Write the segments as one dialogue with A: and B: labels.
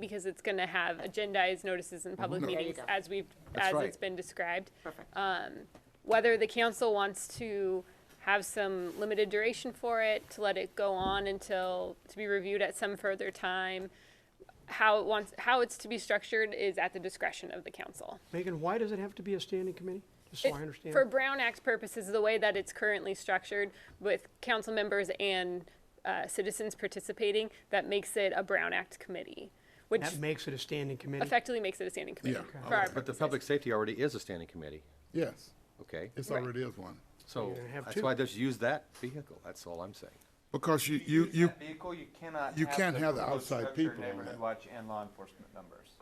A: because it's gonna have agendized notices in public
B: Mhm.
C: you
A: meetings
C: go.
A: as we've,
B: That's
A: as
B: right.
A: it's been described.
C: Perfect.
A: Um, whether the council wants to have some limited duration for it, to let it go on until, to be reviewed at some further time. How it wants, how it's to be structured is at the discretion of the council.
D: Megan, why does it have to be a standing committee? Just so Oh, I understand.
A: For Brown Act purposes, the way that it's currently structured with council members and uh, citizens participating, that makes it a Brown Act committee, which
D: That makes it a standing committee.
A: effectively makes it a standing committee.
B: Yeah.
A: for our
E: But the
A: purposes.
E: public safety already is a standing committee,
B: Yes,
E: okay?
B: it's already is one.
E: So
D: gonna have
E: that's
D: two.
E: why I just use that vehicle, that's all I'm saying.
B: Because you, you,
F: use
B: you,
F: that Vehicle, you cannot.
B: you can't have the
F: proposed
B: outside
F: structure,
B: people on
F: Neighborhood
B: it.
F: watch and law enforcement numbers.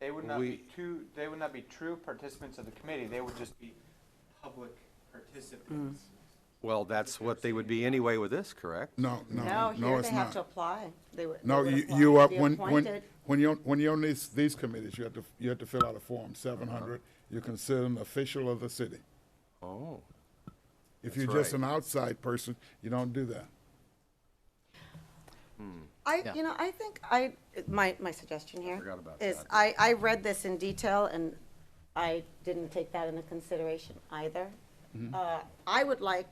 F: They would not
E: We-
F: be two, they would not be true participants of the committee, they would just be public participants.
E: Well, that's what they would be anyway with this, correct?
B: no, no,
C: No,
B: no,
C: here they
B: it's
C: have to
B: not.
C: apply. They would. they
B: No,
C: would
B: you,
C: apply
B: you,
C: to
B: uh,
C: be
B: when, when,
C: appointed.
B: when you're, when you're on these, these committees, you have to, you have to fill out a form, seven hundred. You consider an official of the city.
E: Oh,
B: If
E: That's
B: you're just
E: right.
B: an outside person, you don't do that.
C: I, you know, I think I, my, my suggestion here
E: forgot about
C: is,
E: that.
C: I, I read this in detail and I didn't take that into consideration either. Uh, I would like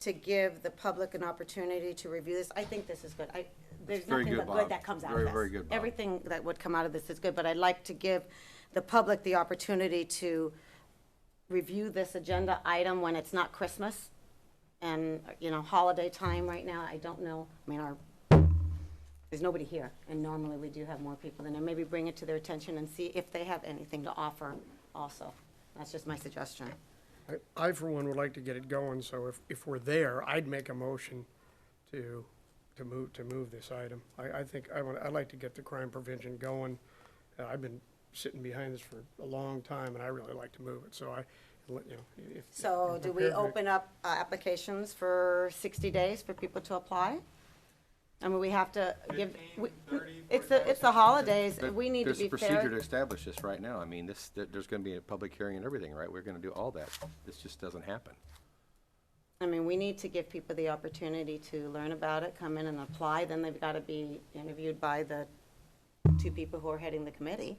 C: to give the public an opportunity to review this. I think this is good. I, there's
E: very
C: nothing
E: good,
C: but
E: Bob.
C: good that comes out of
E: Very,
C: this.
E: very good, Bob.
C: Everything that would come out of this is good, but I'd like to give the public the opportunity to review this agenda item when it's not Christmas and, you know, holiday time right now. I don't know, I mean, our, there's nobody here, and normally we do have more people than there. Maybe bring it to their attention and see if they have anything to offer also. That's just my suggestion.
G: I- I, for one, would like to get it going, so if, if we're there, I'd make a motion to, to move, to move this item. I, I think, I want, I'd like to get the crime prevention going. Uh, I've been sitting behind this for a long time, and I really like to move it, so I, let- you know, if.
C: So
G: if
C: do
G: you're
C: we
G: prepared to-
C: open up uh, applications for 60 days for people to apply? I mean, we have to give, we-
F: 15, 30,
C: it's the, it's the holidays,
E: But
C: we need to
E: There's
C: be
E: a procedure to
C: fair.
E: establish this right now. I mean, this, there- there's gonna be a public hearing and everything, right? We're gonna do all that. This just doesn't happen.
C: I mean, we need to give people the opportunity to learn about it, come in and apply, then they've got to be interviewed by the two people who are heading the committee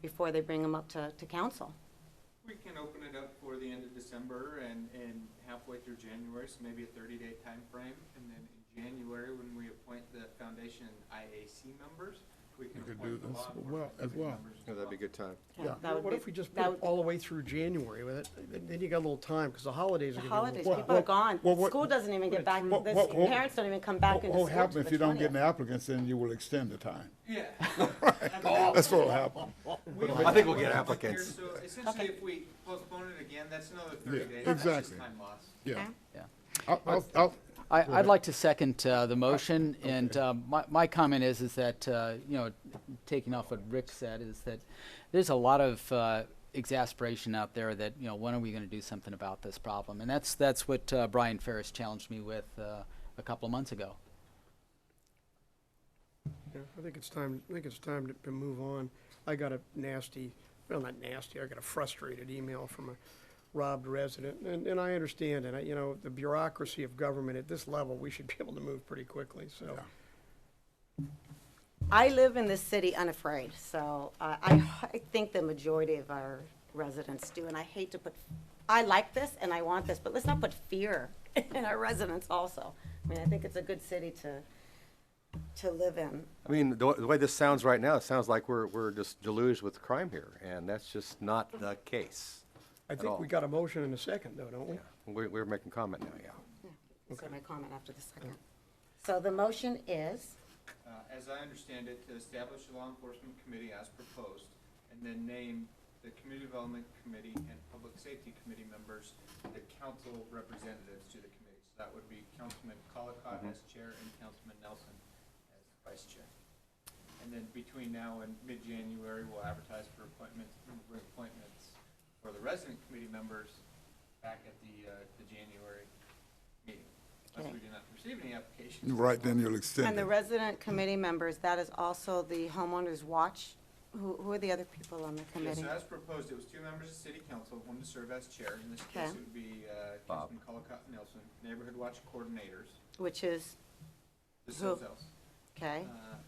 C: before they bring them up to, to council.
F: We can open it up for the end of December and, and halfway through January, so maybe a thirty-day time frame, And then in January, when we appoint the foundation IAC members, we can
B: You could
F: appoint
B: do
F: the law
B: this as well- as
F: enforcement committee
B: well.
F: members as well.
E: good time.
B: Yeah.
C: That would
G: What
C: be-
G: if we just
C: that
G: put it
C: would be-
G: all the way through January with it? Then- Then you got a little time, because the holidays
C: The
G: are gonna be.
C: holidays,
B: Well,
C: people are
B: well,
C: gone.
B: well, what-
C: School doesn't even get back,
B: Well,
C: the
B: well, well,
C: parents don't even come back
B: What
C: into
B: will
C: school till
B: happen if
C: the
B: you don't get
C: 20th.
B: any applicants, then you will extend the time.
F: Yeah.
B: That's what will happen.
E: I think we'll get applicants.
F: So essentially, if we postpone it again, that's another thirty
B: Yeah,
F: days, that's just
B: exactly.
F: time lost.
B: Yeah.
H: Yeah.
B: I'll, I'll, I'll,
H: I, I'd like to second uh, the motion, and uh, my, my comment is, is that, uh, you know, taking off what Rick said, is that there's a lot of uh, exasperation out there that, you know, when are we going to do something about this problem? And that's, that's what uh, Brian Ferris challenged me with uh, a couple of months ago.
G: Yeah, I think it's time, I think it's time to, to move on. I got a nasty, well, not nasty, I got a frustrated email from a robbed resident, and, and I understand, and I, you know, the bureaucracy of government at this level, we should be able to move pretty quickly, so.
C: I live in this city unafraid, so uh, I, I think the majority of our residents do, and I hate to put, I like this and I want this, but let's not put fear in our residents also. I mean, I think it's a good city to, to live in.
E: I mean, the, wa- the way this sounds right now, it sounds like we're, we're just deluged with crime here, and that's just not the case.
G: I
E: At
G: think
E: all.
G: we got a motion in a second, though, don't we?
E: We're, we're making comment now, yeah.
C: So my comment after the second. So the motion is,
F: Uh, As I understand it, to establish a law enforcement committee as proposed, and then name the community development committee and public safety committee members, the council representatives to the committee. So that would be Councilman Colacott as chair and Councilman Nelson as vice chair. And then between now and mid-January, we'll advertise for appointments, and bring appointments for the resident committee members back at the, uh, the January meeting. Unless we do not receive any applications.
B: right, then you'll
C: and
B: extend
C: the
B: it.
C: resident committee members, that is also the homeowners watch. Who, who are the other people on the
F: Yeah,
C: committee?
F: so as proposed, it was two members of city council, one to serve as chair. In this case, it
C: Okay.
F: would be uh,
E: Bob.
F: Councilman Colacott Nelson, neighborhood watch coordinators.
C: Which is
F: This
C: Who?
F: is else.
C: okay?
F: uh,